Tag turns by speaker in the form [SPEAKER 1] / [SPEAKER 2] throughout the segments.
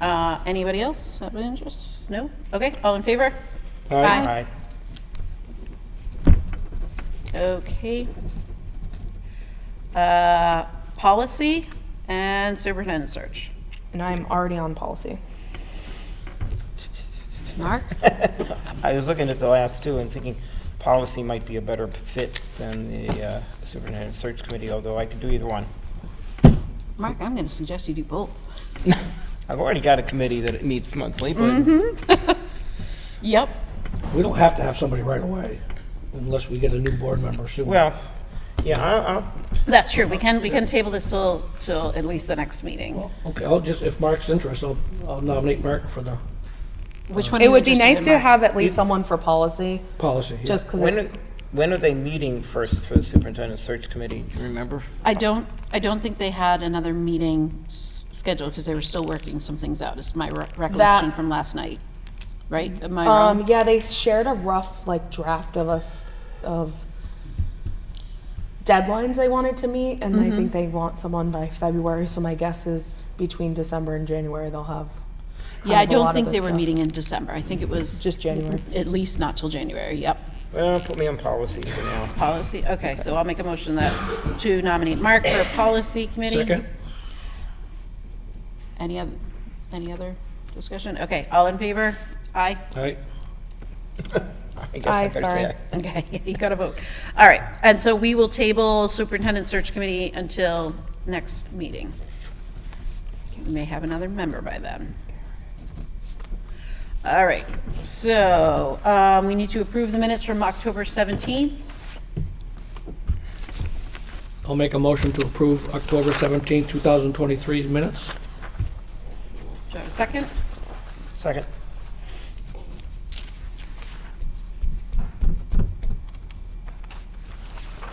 [SPEAKER 1] Uh, Anybody else have an interest? No? Okay, all in favor? Aye. Okay. Uh, Policy and superintendent search.
[SPEAKER 2] And I'm already on policy.
[SPEAKER 1] Mark?
[SPEAKER 3] I was looking at the last two and thinking policy might be a better fit than the uh, superintendent search committee, although I could do either one.
[SPEAKER 1] Mark, I'm going to suggest you do both.
[SPEAKER 3] I've already got a committee that meets monthly,
[SPEAKER 1] Mm-hmm.
[SPEAKER 3] but
[SPEAKER 1] Yep.
[SPEAKER 4] We don't have to have somebody right away unless we get a new board member soon.
[SPEAKER 3] well, yeah, I'll, I'll-
[SPEAKER 1] That's true. We can, we can table this till, till at least the next meeting.
[SPEAKER 4] Okay, I'll just, if Mark's interested, I'll- I'll nominate Mark for the
[SPEAKER 1] Which one? are
[SPEAKER 2] It
[SPEAKER 1] you
[SPEAKER 2] would be
[SPEAKER 1] interested
[SPEAKER 2] nice
[SPEAKER 1] in,
[SPEAKER 2] to
[SPEAKER 1] Mark?
[SPEAKER 2] have at least someone for policy,
[SPEAKER 4] policy. here.
[SPEAKER 2] just because
[SPEAKER 3] when are, when are they meeting first for the superintendent search committee? Do you remember?
[SPEAKER 1] I don't, I don't think they had another meeting s- scheduled because they were still working some things out, is my re- recollection from last night. Right? Am I
[SPEAKER 2] Um,
[SPEAKER 1] wrong?
[SPEAKER 2] yeah, they shared a rough like draft of us of deadlines they wanted to meet, and I think they want someone by February. So my guess is between December and January they'll have. kind
[SPEAKER 1] Yeah, I
[SPEAKER 2] of a lot
[SPEAKER 1] don't
[SPEAKER 2] of
[SPEAKER 1] think
[SPEAKER 2] this
[SPEAKER 1] they were
[SPEAKER 2] stuff.
[SPEAKER 1] meeting in December. I think it was
[SPEAKER 2] Just January.
[SPEAKER 1] at least not till January. Yep.
[SPEAKER 3] Well, put me on policy for now.
[SPEAKER 1] Policy, okay, so I'll make a motion that, to nominate Mark for policy committee.
[SPEAKER 4] Second?
[SPEAKER 1] Any other, any other discussion? Okay, all in favor? Aye.
[SPEAKER 4] All right.
[SPEAKER 3] I guess
[SPEAKER 2] Aye,
[SPEAKER 3] I better say
[SPEAKER 2] sorry.
[SPEAKER 3] aye.
[SPEAKER 1] Okay, you got a vote. All right, and so we will table superintendent search committee until next meeting. We may have another member by then. All right, so, um, we need to approve the minutes from October 17th.
[SPEAKER 4] I'll make a motion to approve October 17, 2023 minutes.
[SPEAKER 1] Do I have a second?
[SPEAKER 3] Second.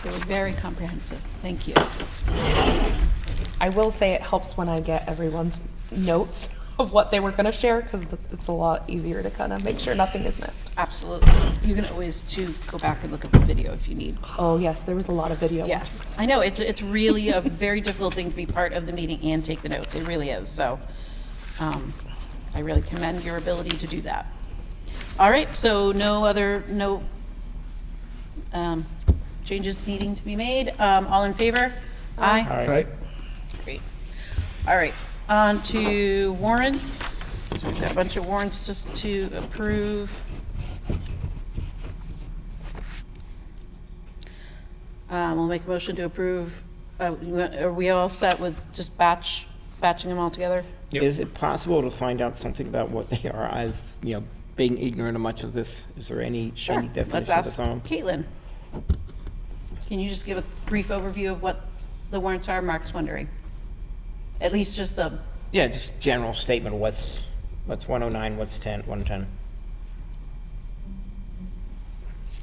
[SPEAKER 1] They were very comprehensive, thank you.
[SPEAKER 2] I will say it helps when I get everyone's notes of what they were going to share because it's a lot easier to kind of make sure nothing is missed.
[SPEAKER 1] Absolutely. You can always too go back and look at the video if you need.
[SPEAKER 2] Oh yes, there was a lot of video.
[SPEAKER 1] Yeah, I know, it's, it's really a very difficult thing to be part of the meeting and take the notes, it really is, so um, I really commend your ability to do that. All right, so no other, no um, changes needing to be made, Um, all in favor? Aye.
[SPEAKER 4] All right.
[SPEAKER 1] Great. All right, on to warrants, we've got a bunch of warrants just to approve. Um, We'll make a motion to approve, uh, you want- are we all set with just batch, batching them all together?
[SPEAKER 4] Yep.
[SPEAKER 3] Is it possible to find out something about what they are as, you know, being ignorant of much of this? Is there any, any
[SPEAKER 1] Let's
[SPEAKER 3] definition of
[SPEAKER 1] ask
[SPEAKER 3] some?
[SPEAKER 1] Caitlin. Can you just give a brief overview of what the warrants are, Mark's wondering? At least just the,
[SPEAKER 3] Yeah, just general statement of what's, what's 109, what's 10, 110.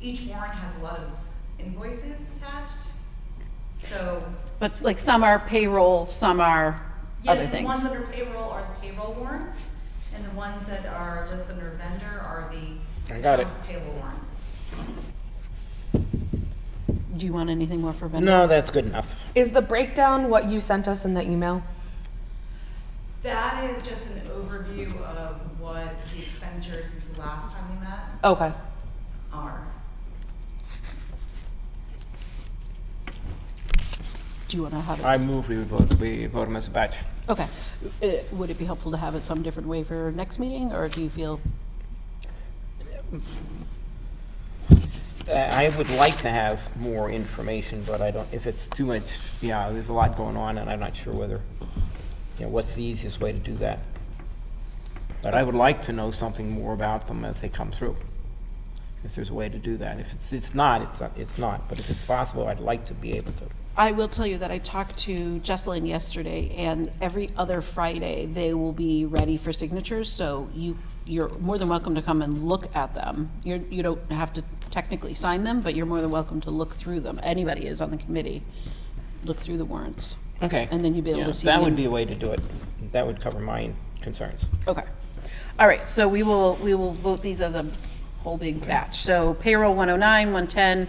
[SPEAKER 5] each warrant has a lot of invoices attached, so.
[SPEAKER 1] but it's like some are payroll, some are other
[SPEAKER 5] Yes, the
[SPEAKER 1] things.
[SPEAKER 5] ones under payroll are the payroll warrants, and the ones that are listed under vendor are the.
[SPEAKER 3] I got it.
[SPEAKER 5] accounts Payable warrants.
[SPEAKER 1] Do you want anything more for vendor?
[SPEAKER 3] No, that's good enough.
[SPEAKER 2] Is the breakdown what you sent us in the email?
[SPEAKER 5] That is just an overview of what the expenditures since the last time we met
[SPEAKER 2] Okay.
[SPEAKER 5] are.
[SPEAKER 1] Do you want to have it?
[SPEAKER 3] I move we vote, we vote them as a batch.
[SPEAKER 1] Okay. Uh, Would it be helpful to have it some different way for next meeting, or do you feel,
[SPEAKER 3] Uh, I would like to have more information, but I don't, if it's too much, yeah, there's a lot going on, and I'm not sure whether, you know, what's the easiest way to do that. But I would like to know something more about them as they come through, if there's a way to do that. If it's, it's not, it's not, it's not, but if it's possible, I'd like to be able to.
[SPEAKER 1] I will tell you that I talked to Jesselyn yesterday, and every other Friday, they will be ready for signatures, so you, you're more than welcome to come and look at them. You're, you don't have to technically sign them, but you're more than welcome to look through them. Anybody is on the committee, look through the warrants.
[SPEAKER 3] Okay.
[SPEAKER 1] And then you'll be able
[SPEAKER 3] Yeah,
[SPEAKER 1] to see.
[SPEAKER 3] That
[SPEAKER 1] the
[SPEAKER 3] would be a way to do it. That would cover my concerns.
[SPEAKER 1] Okay. All right, so we will, we will vote these as a whole big batch. So payroll 109, 110,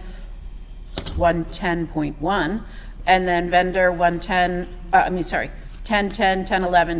[SPEAKER 1] 110.1, and then vendor 110, uh, I mean, sorry, 1010, 1011,